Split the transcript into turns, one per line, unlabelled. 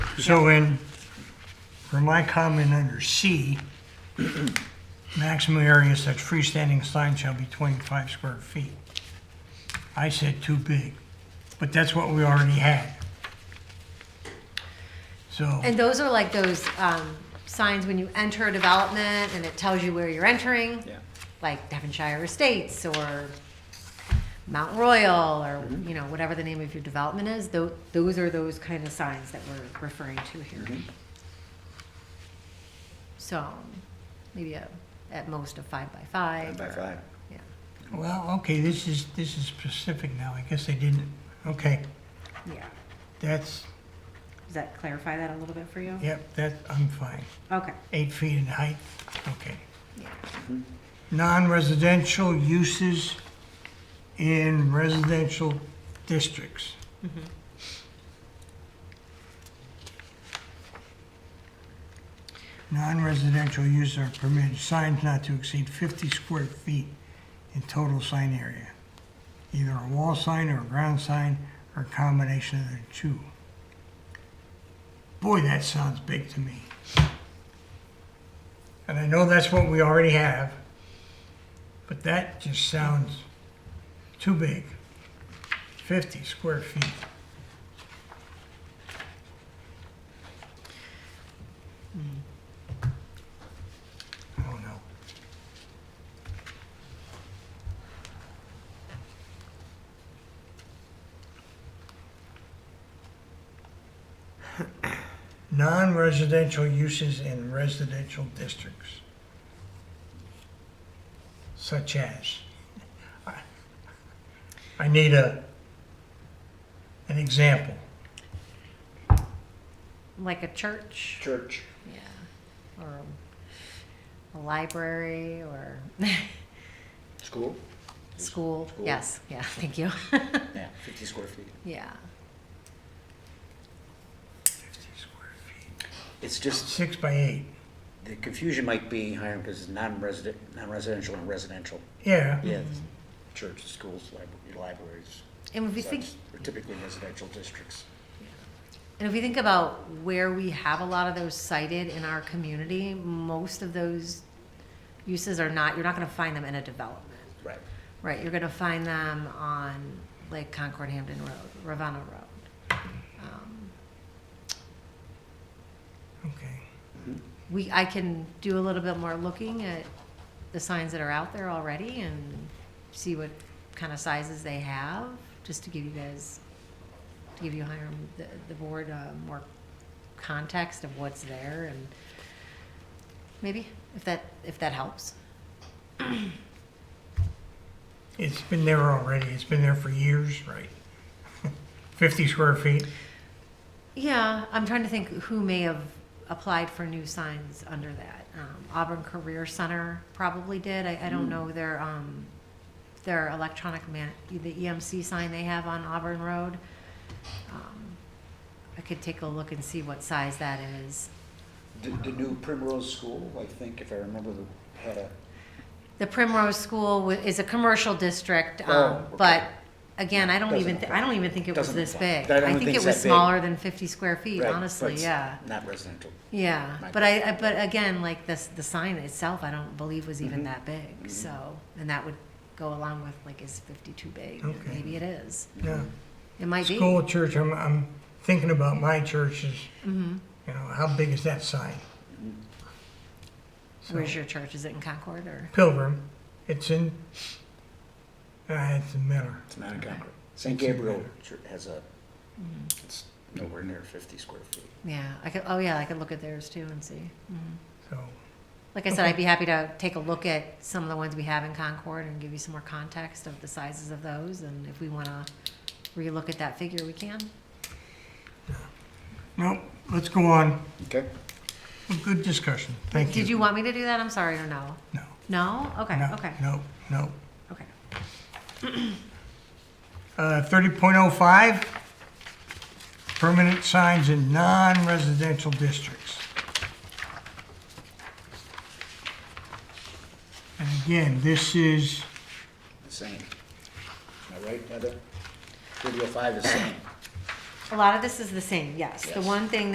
So in, for my comment under C, maximum area such freestanding sign shall be 25 square feet. I said too big, but that's what we already had. So,
And those are like those um, signs when you enter a development and it tells you where you're entering,
Yeah.
like Devonshire Estates or Mount Royal or you know whatever the name of your development is. Tho- those are those kind of signs that we're referring to here. So maybe a, at most a five by five.
By
or-
five.
Yeah.
well, okay, this is, this is specific now. I guess I didn't, okay,
Yeah.
that's,
Does that clarify that a little bit for you?
yep, that, I'm fine.
Okay.
Eight feet in height, okay.
Yeah.
non-residential uses in residential districts. Non-residential uses are permitted, signs not to exceed 50 square feet in total sign area, either a wall sign or a ground sign or a combination of the two. Boy, that sounds big to me. And I know that's what we already have, but that just sounds too big. 50 square feet. I don't know. Non-residential uses in residential districts. Such as, I- I need a, an example.
Like a church.
Church.
Yeah, or a library or school.
School? School.
Yes, yeah, thank you.
Yeah, fifty square feet.
yeah,
50 square feet.
It's just,
Six by eight,
the confusion might be, Hiram, because it's non-resident, non-residential and residential.
yeah.
Yes. Church, schools, libra- libraries.
and if we think,
such are Typically residential districts.
and if we think about where we have a lot of those cited in our community, most of those uses are not. You're not going to find them in a development,
Right.
right? You're going to find them on like Concord Hampton Road, Ravenna Road. Um,
Okay.
we, I can do a little bit more looking at the signs that are out there already and see what kind of sizes they have, just to give you guys, to give you Hiram, the, the board, uh, more context of what's there and maybe, if that, if that helps.
It's been there already, it's been there for years, right? 50 square feet,
Yeah, I'm trying to think who may have applied for new signs under that. Um, Auburn Career Center probably did. I, I
Hmm.
don't know their, um, their electronic man, the EMC sign they have on Auburn Road. Um, I could take a look and see what size that is.
The, the new Primrose School, I think, if I remember, the- had a,
The Primrose School wa- is a commercial district,
Oh,
um, but
okay.
again, I don't
Doesn't
even, thi- I don't even think it was
Doesn't
this
apply.
big.
I don't
I think
think
it
it's
was
that big.
smaller than fifty square feet,
right, but
honestly,
it's
yeah.
Not residential.
Yeah,
My
but I, I, but again, like this, the sign itself, I don't believe was even
Mm-hmm.
that
Mhm.
big, so, and that would go along with, like, is fifty too big?
Okay.
Maybe it is,
yeah.
it might be.
School, church, I'm, I'm thinking about my churches,
Mhm.
you know, how big is that sign? So-
Where's your church, is it in Concord, or,
Pilgrim. It's in, uh, it's in Miller.
It's not in Concord. St. Mm-hmm. Gabriel Church has a,
Mm-hmm.
it's nowhere near fifty square feet.
yeah, I could, oh yeah, I could look at theirs too and see. Mhm.
So,
Like I said, I'd be happy to take a look at some of the ones we have in Concord and give you some more context of the sizes of those, and if we wanna relook at that figure, we can.
nope, let's go on.
Okay.
Good discussion. Thank you.
Did you want me to do that, I'm sorry, or no?
No.
No? Okay,
No,
okay,
No, no.
okay.
Uh, 30.05, permanent signs in non-residential districts. And again, this is,
The same. Am I right, Heather? Thirty oh five is same.
A lot of this is the same, yes. The
Yes.
one thing